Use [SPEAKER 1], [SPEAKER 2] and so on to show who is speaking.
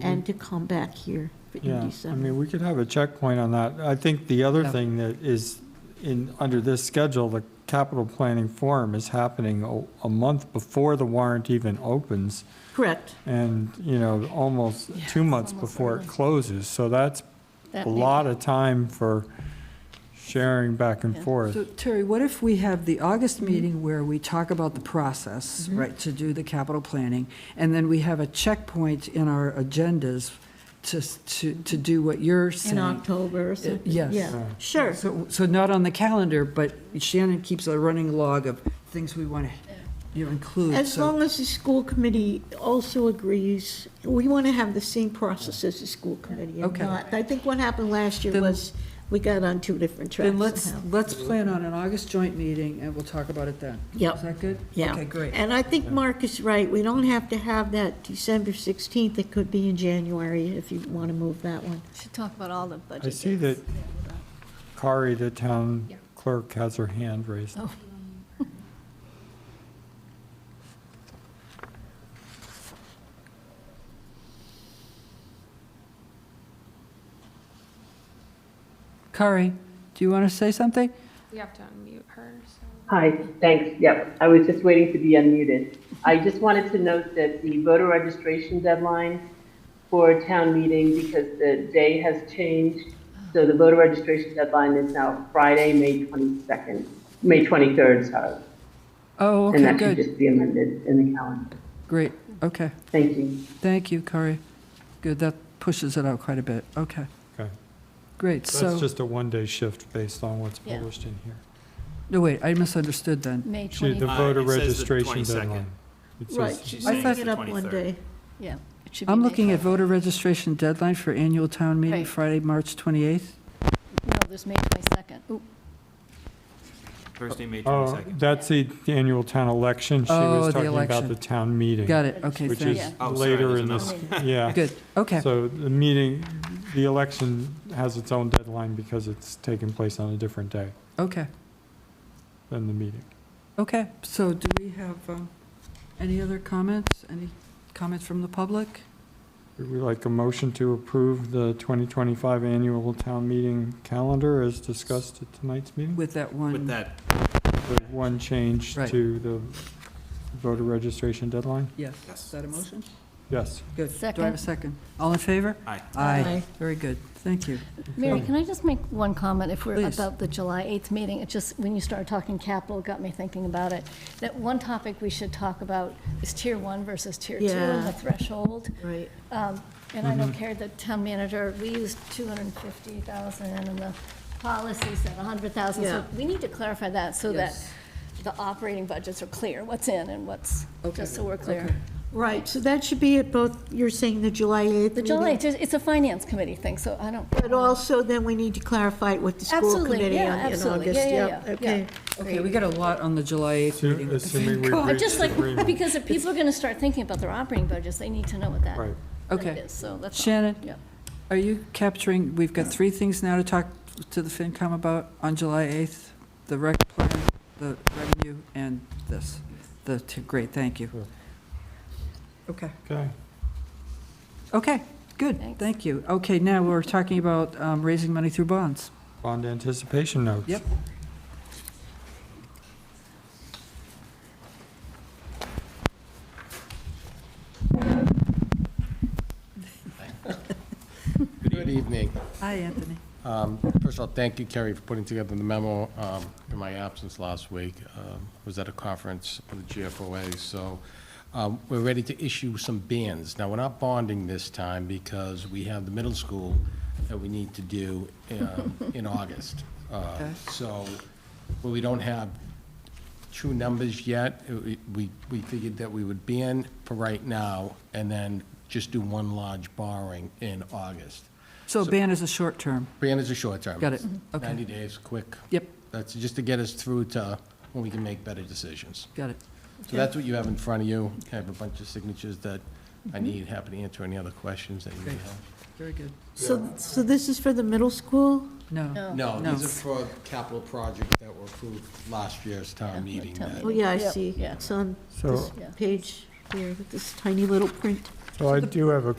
[SPEAKER 1] and to come back here for- in
[SPEAKER 2] Mm-hmm. Yeah, I
[SPEAKER 1] December.
[SPEAKER 2] mean, we could have a checkpoint on that. I think the other
[SPEAKER 3] Yeah.
[SPEAKER 2] thing that is in, under this schedule, the capital planning forum is happening a- a month before the warrant even opens
[SPEAKER 1] Correct.
[SPEAKER 2] and, you know, almost
[SPEAKER 3] Yeah,
[SPEAKER 2] two months
[SPEAKER 4] almost
[SPEAKER 2] before it
[SPEAKER 4] early.
[SPEAKER 2] closes. So that's
[SPEAKER 4] That
[SPEAKER 2] a
[SPEAKER 4] may-
[SPEAKER 2] lot of time for sharing back and
[SPEAKER 4] Yeah.
[SPEAKER 2] forth.
[SPEAKER 3] So Terry, what if we have the August
[SPEAKER 1] Mm-hmm.
[SPEAKER 3] meeting where we talk about the process, right, to do the capital planning? And then we have a checkpoint in our agendas to, s- to, to do what you're
[SPEAKER 1] In
[SPEAKER 3] saying.
[SPEAKER 1] October or something.
[SPEAKER 3] yes.
[SPEAKER 1] Yeah,
[SPEAKER 2] Yeah.
[SPEAKER 1] sure.
[SPEAKER 3] So, so not on the calendar, but Shannon keeps a running log of things we want to, you know, include,
[SPEAKER 1] As
[SPEAKER 3] so.
[SPEAKER 1] long as the school committee also agrees, we want to have the same process as the school committee. and
[SPEAKER 3] Okay.
[SPEAKER 1] not- I think what happened last year
[SPEAKER 3] Then-
[SPEAKER 1] was we got on two different tracks
[SPEAKER 3] Then let's,
[SPEAKER 1] somehow.
[SPEAKER 3] let's plan on an August joint meeting and we'll talk about it then.
[SPEAKER 1] Yep.
[SPEAKER 3] Is that good?
[SPEAKER 1] Yeah.
[SPEAKER 3] Okay, great.
[SPEAKER 1] And I think Mark is right. We don't have to have that December 16th. It could be in January if you want to move that one.
[SPEAKER 4] Should talk about all the budget.
[SPEAKER 2] I see that
[SPEAKER 4] dates.
[SPEAKER 2] Kari, the town clerk, has her hand raised.
[SPEAKER 4] Oh.
[SPEAKER 3] Kari, do you want to say something?
[SPEAKER 5] We have to unmute her, so.
[SPEAKER 6] Hi, thanks. Yep, I was just waiting to be unmuted. I just wanted to note that the voter registration deadline for town meeting, because the day has changed, so the voter registration deadline is now Friday, May 22nd, May 23rd, sorry.
[SPEAKER 3] Oh,
[SPEAKER 6] And
[SPEAKER 3] okay,
[SPEAKER 6] that should
[SPEAKER 3] good,
[SPEAKER 6] just be amended in the calendar.
[SPEAKER 3] great, okay.
[SPEAKER 6] Thank you.
[SPEAKER 3] Thank you, Corey. Good, that pushes it out quite a bit. Okay,
[SPEAKER 2] Okay.
[SPEAKER 3] great.
[SPEAKER 2] That's
[SPEAKER 3] So,
[SPEAKER 2] just a one-day shift based on what's
[SPEAKER 4] Yeah.
[SPEAKER 2] published in here.
[SPEAKER 3] no, wait, I misunderstood then.
[SPEAKER 4] May
[SPEAKER 2] She, the
[SPEAKER 4] 20,
[SPEAKER 7] Uh,
[SPEAKER 2] voter
[SPEAKER 7] it says the
[SPEAKER 2] registration
[SPEAKER 7] 22nd.
[SPEAKER 2] deadline. It says-
[SPEAKER 1] Right.
[SPEAKER 7] she's
[SPEAKER 1] I
[SPEAKER 7] saying
[SPEAKER 1] thought
[SPEAKER 7] it's
[SPEAKER 1] it
[SPEAKER 7] the
[SPEAKER 1] up one
[SPEAKER 7] 23rd.
[SPEAKER 1] day.
[SPEAKER 4] yeah. it should be
[SPEAKER 3] I'm
[SPEAKER 4] May
[SPEAKER 3] looking at
[SPEAKER 4] 20.
[SPEAKER 3] voter registration deadline for annual town meeting,
[SPEAKER 4] Right.
[SPEAKER 3] Friday, March 28th.
[SPEAKER 4] No, there's May 22nd. Ooh,
[SPEAKER 7] Thursday, May
[SPEAKER 2] Oh,
[SPEAKER 7] 22nd.
[SPEAKER 2] that's the annual town election. She
[SPEAKER 3] Oh, the
[SPEAKER 2] was talking about
[SPEAKER 3] election.
[SPEAKER 2] the town meeting.
[SPEAKER 3] Got it, okay,
[SPEAKER 2] Which
[SPEAKER 3] thanks.
[SPEAKER 2] is
[SPEAKER 4] Yeah.
[SPEAKER 7] Oh, sorry,
[SPEAKER 2] later
[SPEAKER 7] there's
[SPEAKER 2] in this,
[SPEAKER 7] another
[SPEAKER 2] yeah.
[SPEAKER 3] Good, okay,
[SPEAKER 2] So the meeting, the election has its own deadline because it's taking place on a different day
[SPEAKER 3] okay,
[SPEAKER 2] than the meeting.
[SPEAKER 3] okay. So do we have um, any other comments? Any comments from the public?
[SPEAKER 2] Would we like a motion to approve the 2025 annual town meeting calendar as discussed at tonight's meeting?
[SPEAKER 3] With that one?
[SPEAKER 7] With that,
[SPEAKER 2] With one change
[SPEAKER 3] Right.
[SPEAKER 2] to the voter registration deadline?
[SPEAKER 3] Yes.
[SPEAKER 7] Yes.
[SPEAKER 3] Is that a motion?
[SPEAKER 2] Yes.
[SPEAKER 3] Good. Do I have a second? All in favor?
[SPEAKER 7] aye.
[SPEAKER 1] Aye.
[SPEAKER 3] Very good, thank you.
[SPEAKER 4] Mary, can I just make one comment if we're
[SPEAKER 3] Please.
[SPEAKER 4] about the July 8th meeting? It just, when you started talking capital, it got me thinking about it. That one topic we should talk about is tier one versus tier two
[SPEAKER 1] Yeah.
[SPEAKER 4] and the threshold.
[SPEAKER 1] Right.
[SPEAKER 4] Um, And I don't care the town manager, we used 250,000 and the policy said 100,000.
[SPEAKER 1] Yeah.
[SPEAKER 4] So we need to clarify that so that
[SPEAKER 3] Yes.
[SPEAKER 4] the operating budgets are clear, what's in and what's, just so we're clear.
[SPEAKER 1] Right, so that should be at both, you're saying the July 8th meeting?
[SPEAKER 4] The July, it's just- it's a finance committee thing, so I don't.
[SPEAKER 1] But also, then we need to clarify it with the school
[SPEAKER 4] Absolutely,
[SPEAKER 1] committee
[SPEAKER 4] yeah,
[SPEAKER 1] on- in
[SPEAKER 4] absolutely.
[SPEAKER 1] August.
[SPEAKER 4] Yeah, yeah,
[SPEAKER 1] Yep,
[SPEAKER 4] yeah,
[SPEAKER 1] Okay.
[SPEAKER 3] Okay, we got a lot on the July 8th meeting. with the
[SPEAKER 2] Assuming we
[SPEAKER 3] FinCom.
[SPEAKER 4] But just
[SPEAKER 2] reach
[SPEAKER 4] like,
[SPEAKER 2] agreement.
[SPEAKER 4] because if people are going to start thinking about their operating budgets, they need to know what that
[SPEAKER 2] Right.
[SPEAKER 4] that
[SPEAKER 3] Okay.
[SPEAKER 4] is, so that's. all.
[SPEAKER 3] Shannon?
[SPEAKER 4] Yeah.
[SPEAKER 3] Are you capturing, we've got three things now to talk to the FinCom about on July 8th, the rec plan, the revenue, and this. The, t- great, thank you.
[SPEAKER 2] Sure.
[SPEAKER 3] Okay.
[SPEAKER 2] Okay.
[SPEAKER 3] Okay, good,
[SPEAKER 4] Thanks.
[SPEAKER 3] thank you. Okay, now we're talking about um, raising money through bonds.
[SPEAKER 2] Bond anticipation notes.
[SPEAKER 3] Yep.
[SPEAKER 8] Good evening.
[SPEAKER 3] Hi, Anthony.
[SPEAKER 8] Um, First of all, thank you, Kerry, for putting together the memo um, in my absence last week. Um, I Was at a conference with the GFOA, so um, we're ready to issue some bans. Now, we're not bonding this time because we have the middle school that we need to do um, in August. Uh,
[SPEAKER 3] Okay.
[SPEAKER 8] So, well, we don't have true numbers yet. It- we- We, we figured that we would ban for right now and then just do one large borrowing in August.
[SPEAKER 3] So ban is a short term.
[SPEAKER 8] Ban is a short term.
[SPEAKER 3] Got it. Okay.
[SPEAKER 8] 90 days, quick.
[SPEAKER 3] Yep,
[SPEAKER 8] That's just to get us through to when we can make better decisions.
[SPEAKER 3] got it.
[SPEAKER 8] So that's what you have in front of you. I have a bunch of signatures that I need, happy to answer any other questions that you may have.
[SPEAKER 3] Very good.
[SPEAKER 1] So, so this is for the middle school?
[SPEAKER 3] No.
[SPEAKER 8] No,
[SPEAKER 3] No.
[SPEAKER 8] these are for capital projects that were approved last year's town meeting.
[SPEAKER 4] town
[SPEAKER 8] that-
[SPEAKER 1] Oh, yeah, I
[SPEAKER 4] Yep,
[SPEAKER 1] see.
[SPEAKER 4] yeah.
[SPEAKER 1] It's on
[SPEAKER 2] So-
[SPEAKER 1] this
[SPEAKER 4] Yeah.
[SPEAKER 1] page here with this tiny little print.
[SPEAKER 2] So I do have a